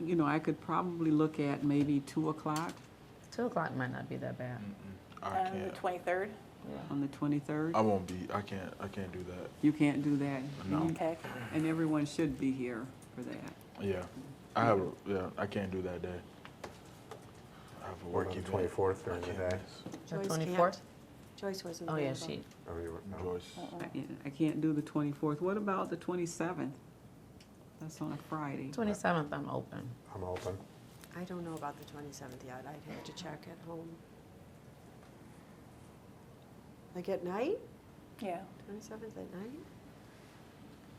you know, I could probably look at maybe two o'clock Two o'clock might not be that bad. I On Um, the can't. twenty-third? on the twenty-third. I won't be. I can't. I can't do that. You can't do that. No. You- Okay, And everyone should be here for that. Yeah, I have. A, yeah, I can't do that day. I have a Working event. 24th I during the can't day. miss. The Joyce can't. 24th? Joyce wasn't Oh, available. yeah, she, Oh, you were- no. Joyce. I- you know, I can't do the twenty-fourth. What about the twenty-seventh? That's on a Friday. twenty-seventh, I'm open. I'm open. I don't know about the 27th yet. I'd have to check at home. Like at night? yeah. 27th at night?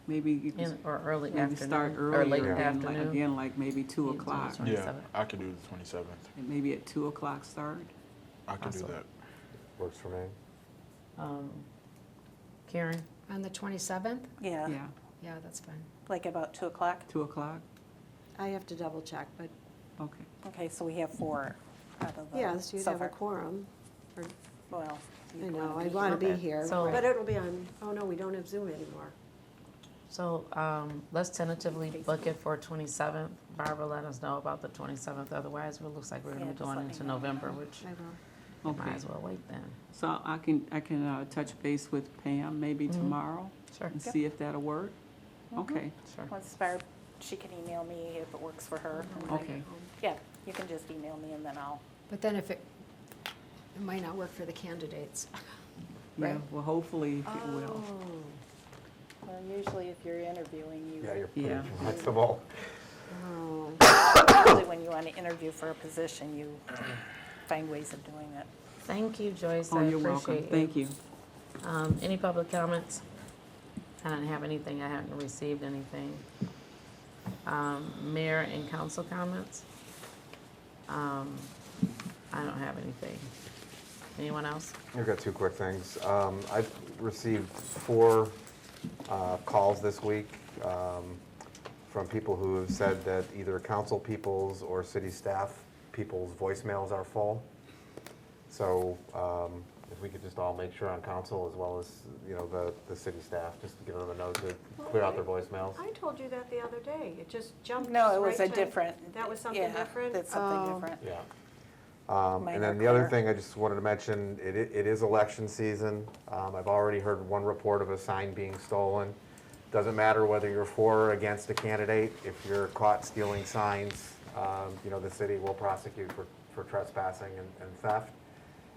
Maybe you In, could or early maybe start afternoon, or late earlier, again, like- afternoon. again, like maybe two Yeah, it's o'clock. always- Yeah, 27th. I can do the twenty seventh. And Maybe at two o'clock start? I can do Awesome. that. Works for me. Um, Karen, On the 27th? Yeah, Yeah, Yeah, that's fine. like about two o'clock. two o'clock? I have to double check, but Okay. Okay, so we have four out of the yeah, so you'd have a Suffolk. quorum. or- Well, I you'd know, wanna be I'd want to be Okay, here, so- but it'll be on, oh no, we don't have Zoom anymore. so, um, let's tentatively book it for twenty-seventh. Barbara, let us know about the twenty-seventh, otherwise, it looks like we're gonna Yeah, be just going let me into know. November, which I will. we might Okay. as well wait then. So I can, I can uh, touch base with Pam maybe Mhm. tomorrow Sure, and see if that'll work? Mm-hmm. Okay, sure. Once Barb, she can email me if it works for her. and then- okay. Yeah, you can just email me and then I'll, But then if it, it might not work for the candidates. Yeah, Right. well, hopefully it will. Oh, well, usually if you're interviewing, you, Yeah, you're Yeah. pretty flexible. Oh, usually when you want to interview for a position, you find ways of doing it. Thank you, Joyce, Oh, I appreciate it. you're welcome. Thank you. Um, any public comments? I don't have anything, I haven't received anything. Um, mayor and council comments? Um, I don't have anything. Anyone else? I've got two quick things. Um, I've received four uh, calls this week um, from people who have said that either council people's or city staff people's voicemails are full. So um, if we could just all make sure on council as well as, you know, the, the city staff, just to give them a note to clear out their voicemails. I told you that the other day. It just jumped No, it right was a to- different. That was something yeah, different? That's Oh. something different. Yeah. Um, Mine And are then the other clear. thing I just wanted to mention, it, i- it is election season. Um, I've already heard one report of a sign being stolen. Doesn't matter whether you're for or against a candidate, if you're caught stealing signs, um, you know, the city will prosecute for, for trespassing and and theft.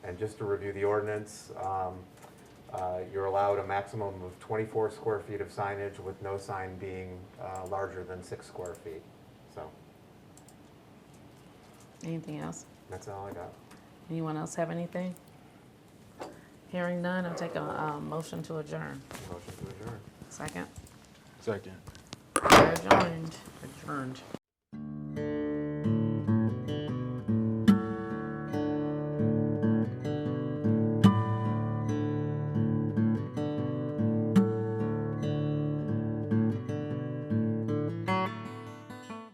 And just to review the ordinance, um, uh, you're allowed a maximum of 24 square feet of signage with no sign being uh, larger than six square feet. So Anything else? that's all I got. Anyone else have anything? Hearing none, I'll take a, uh motion to adjourn. Motion to adjourn. Second, Second. We're adjourned, adjourned.